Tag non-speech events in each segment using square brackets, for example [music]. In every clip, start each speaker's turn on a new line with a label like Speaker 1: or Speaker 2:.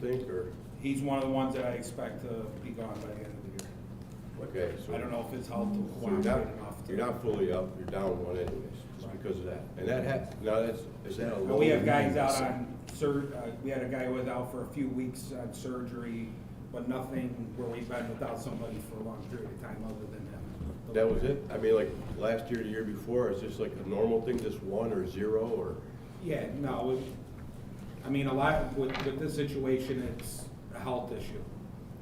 Speaker 1: think, or?
Speaker 2: He's one of the ones that I expect to be gone by the end of the year.
Speaker 1: Okay, so.
Speaker 2: I don't know if his health will
Speaker 1: So You're not,
Speaker 2: cooperate enough. to-
Speaker 1: you're not fully up, you're down one anyways, just
Speaker 2: Right.
Speaker 1: because of that. And that hap, now that's, is that a
Speaker 2: And
Speaker 1: low?
Speaker 2: We have guys out on sur, uh, we had a guy who was out for a few weeks on surgery, but nothing where we've been without somebody for a long period of time other than him.
Speaker 1: That was it? I mean, like, last year, the year before, is this like a normal thing, just one or zero, or?
Speaker 2: Yeah, no, it- I mean, a lot, with, with this situation, it's a health issue.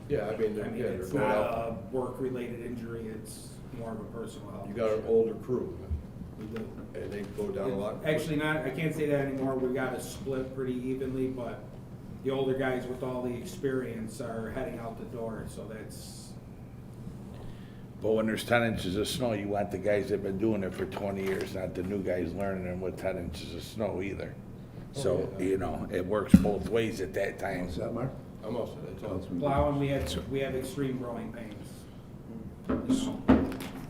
Speaker 1: Yeah, I mean,
Speaker 2: I
Speaker 1: they're,
Speaker 2: mean,
Speaker 1: yeah, they're
Speaker 2: it's
Speaker 1: going
Speaker 2: not
Speaker 1: out.
Speaker 2: a work-related injury, it's more of a personal health.
Speaker 1: You got an
Speaker 2: issue.
Speaker 1: older crew,
Speaker 2: We do.
Speaker 1: and they go down a lot.
Speaker 2: Actually, not, I can't say that anymore, we got it split pretty evenly, but the older guys with all the experience are heading out the door, so that's,
Speaker 3: But when there's ten inches of snow, you want the guys that've been doing it for twenty years, not the new guys learning them with ten inches of snow either. So,
Speaker 1: Oh, yeah.
Speaker 3: you know, it works both ways at that time.
Speaker 4: Is that Mark?
Speaker 1: I'm also, that's all.
Speaker 2: plowing, we have, we have extreme growing pains.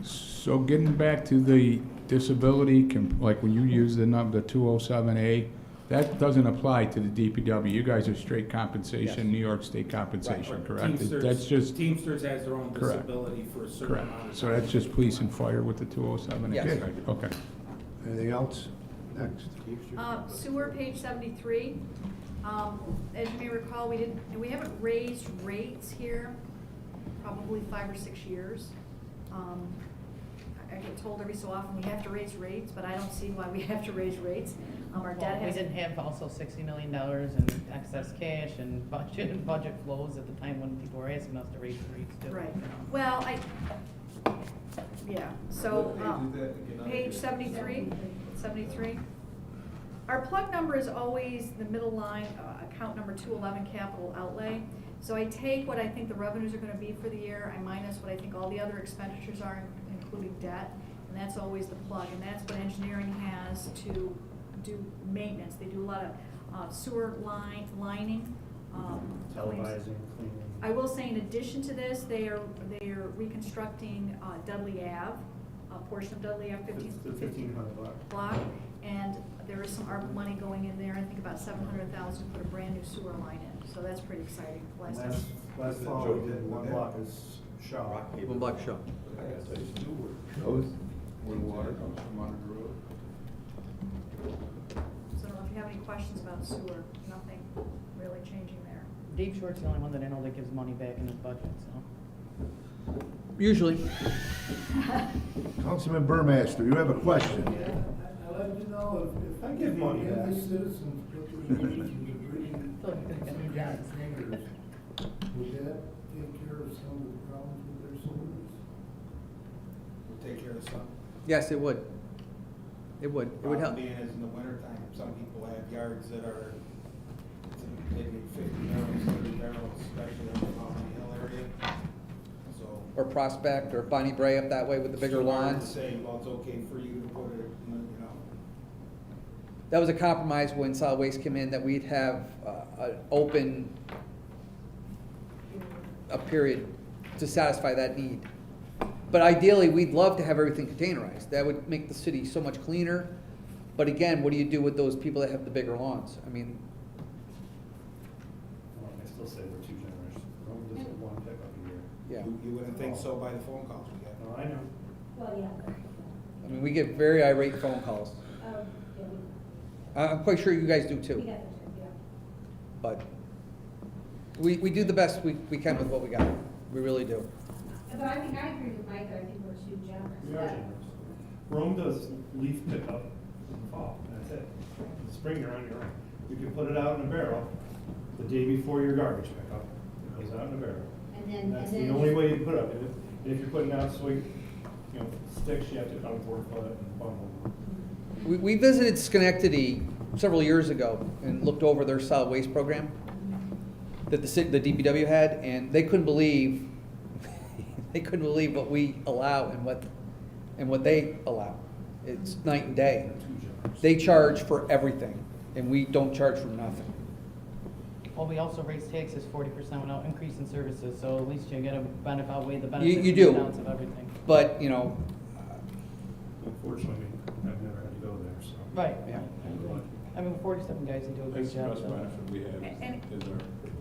Speaker 4: So getting back to the disability, com- like when you use the number, the 207A, that doesn't apply to the DPW. You guys are straight compensation, New York State compensation, correct?
Speaker 2: Teamsters-
Speaker 4: That's just,
Speaker 2: Teamsters has their own
Speaker 4: Correct.
Speaker 2: disability for a certain
Speaker 4: correct.
Speaker 2: amount of.
Speaker 4: So that's just police and fire with the 207A?
Speaker 3: Yes.
Speaker 4: Okay.
Speaker 5: Anything else? Next.
Speaker 6: Uh, Sewer, page seventy-three. Um, As you may recall, we didn't, and we haven't raised rates here probably five or six years. Um, I I get told every so often, we have to raise rates, but I don't see why we [laughs] have to raise rates. Um, Our debt
Speaker 7: Well, We
Speaker 6: has.
Speaker 7: did have also sixty million dollars in excess cash and budget, [laughs] and budget flows at the time when people were asking us to raise the rates too.
Speaker 6: Right, well, I, yeah, so, um, page seventy-three, seventy-three. Our plug number is always the middle line, uh, account number two eleven capital outlay. So I take what I think the revenues are gonna be for the year, I minus what I think all the other expenditures are, including debt, and that's always the plug, and that's what engineering has to do maintenance, they do a lot of uh, sewer line, lining, um. claims.
Speaker 8: televising, cleaning.
Speaker 6: I will say, in addition to this, they are, they are reconstructing uh, Dudley Ave, a portion of Dudley Ave, fifteen,
Speaker 8: Fifteen
Speaker 6: fifteen
Speaker 8: hundred bucks.
Speaker 6: block. And there is some ARPA money going in there, I think about seven hundred thousand, put a brand new sewer line in, so that's pretty exciting. Last time-
Speaker 8: Last, last fall, we did one block is Shaw.
Speaker 1: One block shop. I gotta tell you something.
Speaker 4: Where water comes from under the road?
Speaker 6: So I don't know if you have any questions about sewer, nothing really changing there.
Speaker 7: Dave Short's the only one that I know that gives money back in his budget, so.
Speaker 5: Usually. Councilman Burmaster, you have a question?
Speaker 9: I'd like to know if, if I
Speaker 8: Give
Speaker 9: give
Speaker 8: money
Speaker 9: money to
Speaker 8: back.
Speaker 9: these citizens, what do we need to bring in
Speaker 7: [laughs] Look, they got new jobs.
Speaker 9: containers? Would that take care of some of the problems with their sewers?
Speaker 2: We'll Take care of some.
Speaker 10: Yes, it would. It would. It would
Speaker 2: Problem
Speaker 10: help.
Speaker 2: being is in the wintertime, some people have yards that are, they need fifty barrels, thirty barrels, especially in the Mountain Hill area, so.
Speaker 10: Or Prospect or Bonnie Bray up that way with the bigger
Speaker 2: It's too hard to
Speaker 10: lawns.
Speaker 2: Say, well, it's okay for you to put it, you know,
Speaker 10: That was a compromise when solid waste came in, that we'd have uh, an open, a period to satisfy that need. But ideally, we'd love to have everything containerized. That would make the city so much cleaner. But again, what do you do with those people that have the bigger lawns? I mean,
Speaker 8: Well, I still say we're too generous. We're only just one pickup a year.
Speaker 10: yeah.
Speaker 2: you, you wouldn't think so by the phone calls we get.
Speaker 8: No, I know.
Speaker 10: I mean, we get very irate phone calls. I- Uh, I'm quite sure you guys do too. But we, we do the best we, we can with what we got. We really do.
Speaker 11: But I think I agree with Mike, I think we're too generous.
Speaker 8: We are generous. Rome does leaf pickup in the fall, and that's it. In the spring, you're on your own. You can put it out in a barrel the day before your garbage pickup. It goes out in a barrel.
Speaker 11: And then,
Speaker 8: And
Speaker 11: and
Speaker 8: That's
Speaker 11: then-
Speaker 8: the only way you put up, and if, and if you're putting out sweet, you know, sticks, you have to come four foot and bundle them.
Speaker 10: We, we visited Schenectady several years ago and looked over their solid waste program that the city, the DPW had, and they couldn't believe, [laughs] they couldn't believe what we allow and what, and what they allow. It's night and day. They charge for everything, and we don't charge for nothing.
Speaker 7: Well, we also raised taxes forty percent without increasing services, so at least you get a benefit, outweigh the benefits.
Speaker 10: you
Speaker 7: and
Speaker 10: do.
Speaker 7: downs Of everything.
Speaker 10: But, you know,
Speaker 8: Unfortunately, I've never had to go there, so.
Speaker 7: Right.
Speaker 10: Yeah.
Speaker 7: I mean, forty-seven guys that do a great
Speaker 4: That's the
Speaker 7: job.
Speaker 4: best
Speaker 7: so.
Speaker 4: benefit we have
Speaker 6: And-
Speaker 4: is our